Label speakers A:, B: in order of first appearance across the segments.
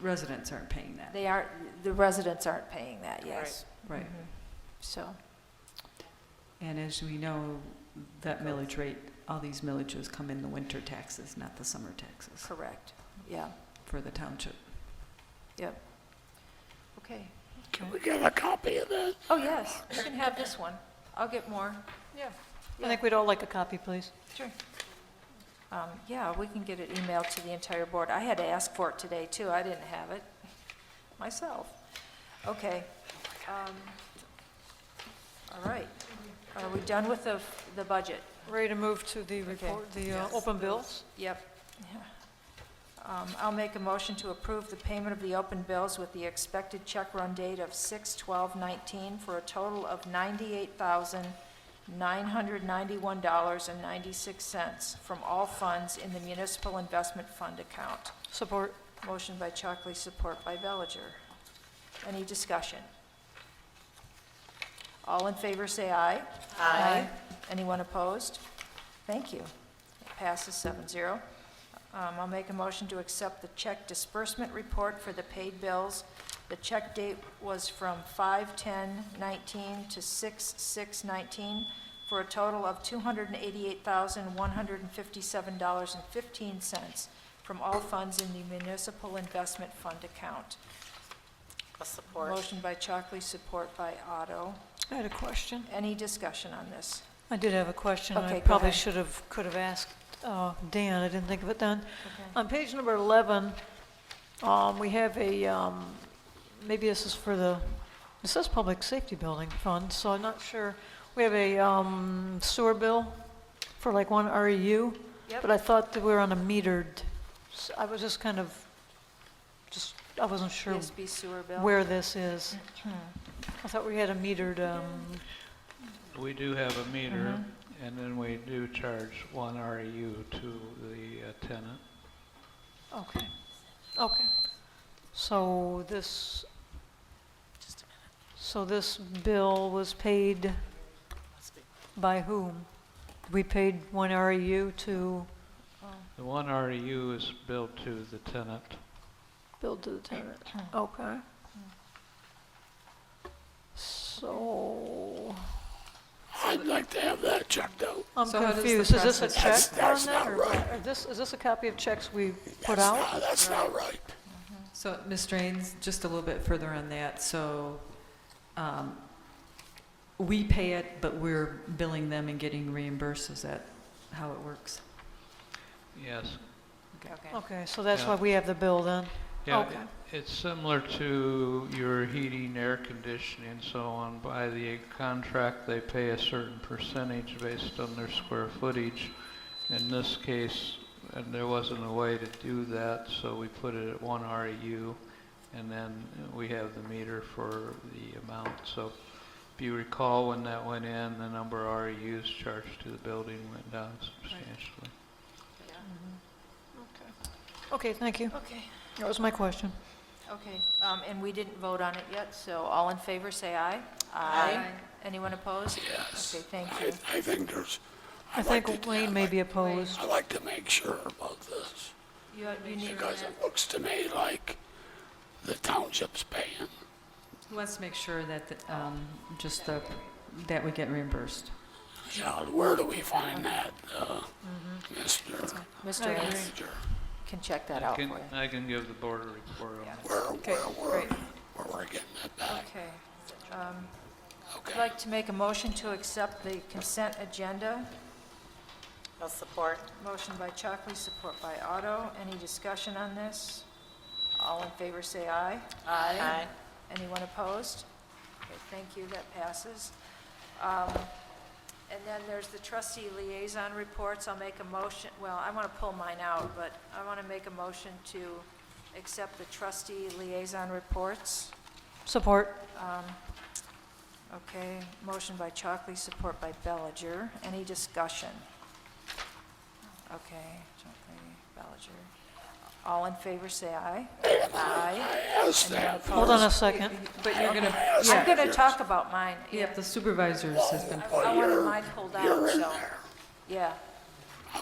A: residents aren't paying that,
B: They aren't, the residents aren't paying that, yes. Mm-hmm.
A: right?
B: So,
A: And as we know, that millage rate, all these millages come in the winter taxes, not the summer taxes
B: correct, yeah,
A: for the township.
B: yep. Okay.
C: Can we get a copy of this?
B: Oh, yes, you can have this one. I'll get more.
D: Yeah.
B: Yeah.
D: I think we'd all like a copy, please.
B: Sure. Um, yeah, we can get it emailed to the entire board. I had to ask for it today, too. I didn't have it myself. Okay. Um, All right. Are we done with the, the budget?
D: Ready to move to the report, the uh, open bills?
B: Yep. Um, I'll make a motion to approve the payment of the open bills with the expected check run date of 6/12/19 for a total of $98,991.96 from all funds in the municipal investment fund account.
D: Support.
B: Motion by Chalkley, support by Bellinger. Any discussion? All in favor, say aye. Aye. Anyone opposed? Thank you. It passes 7-0. zero. Um, I'll make a motion to accept the check disbursement report for the paid bills. The check date was from 5/10/19 to 6/6/19 for a total of $288,157.15 from all funds in the municipal investment fund account. Motion by Chalkley, support by Otto.
D: I had a question.
B: Any discussion on this?
D: I did have a question.
B: Okay,
D: I
B: go
D: probably
B: ahead.
D: should have, could have asked uh, Dan. I didn't think of it then.
B: Okay.
D: On page number 11, um, we have a, um, maybe this is for the, it says Public Safety Building Fund, so I'm not sure. We have a um, sewer bill for like one REU.
B: Yep.
D: But I thought that we were on a metered, s- I was just kind of, just, I wasn't sure
B: ESB sewer bill?
D: where this is. I thought we had a metered, um,
E: We do have a meter, and then we do charge one REU to the uh, tenant.
D: okay, okay. So this, so this bill was paid by whom? We paid one REU to
E: The one REU is billed to the tenant.
D: build to the tenant, okay. So,
C: I'd like to have that checked out.
D: I'm
A: So how does the
D: confused, is this a
A: process-
D: check
C: That's- that's
D: on that,
C: not
D: or
C: right.
D: or this, is this a copy of checks we put
C: That's
D: out?
C: not- That's not right.
A: So, Ms. Drains, just a little bit further on that, so um, we pay it, but we're billing them and getting reimbursed, is that how it works?
E: Yes.
B: Okay.
D: Okay, so that's
E: Yeah.
D: why we have the bill then?
E: Yeah,
D: Okay.
E: it- It's similar to your heating, air conditioning, so on. By the contract, they pay a certain percentage based on their square footage. In this case, and there wasn't a way to do that, so we put it at one REU, and then we have the meter for the amount. So if you recall, when that went in, the number of REUs charged to the building went down substantially.
D: Okay, thank you.
B: Okay,
D: That was my question.
B: okay. Um, And we didn't vote on it yet, so all in favor, say aye. Anyone opposed?
C: Yes.
B: Okay, thank
C: I,
B: you.
C: I think there's,
D: I think Wayne may be opposed.
C: I'd like to make sure about this,
B: You you need,
C: because it looks to me like the township's paying.
A: Who wants to make sure that, the, um, just the, that we get reimbursed?
C: Yeah, where do we find that, uh,
B: Mm-hmm.
C: Mr.
B: Mr. Ains
C: Manager?
B: can check that out for
E: Can-
B: you.
E: I can give the board a report on that.
C: Where, where, where,
B: great.
C: where we're getting that back,
B: Okay. I'd
C: okay?
B: like to make a motion to accept the consent agenda.
F: I'll support.
B: Motion by Chalkley, support by Otto. Any discussion on this? All in favor, say aye.
F: Aye.
B: Anyone opposed? Okay, thank you, that passes. Um, And then there's the trustee liaison reports. I'll make a motion, well, I want to pull mine out, but I want to make a motion to accept the trustee liaison reports.
D: Support.
B: Okay, motion by Chalkley, support by Bellinger. Any discussion? Okay, Chalkley, Bellinger. All in favor, say aye. Aye.
C: Yes, that,
D: Hold on a second.
A: But you're gonna,
B: I'm
A: yeah,
B: going to talk about mine.
A: yeah, the supervisors has been,
B: I- I wanted mine pulled out,
C: you're in
B: so,
C: there.
B: yeah.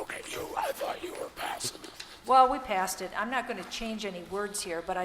C: Okay, you, I thought you were passing it.
B: Well, we passed it. I'm not going to change any words here, but I.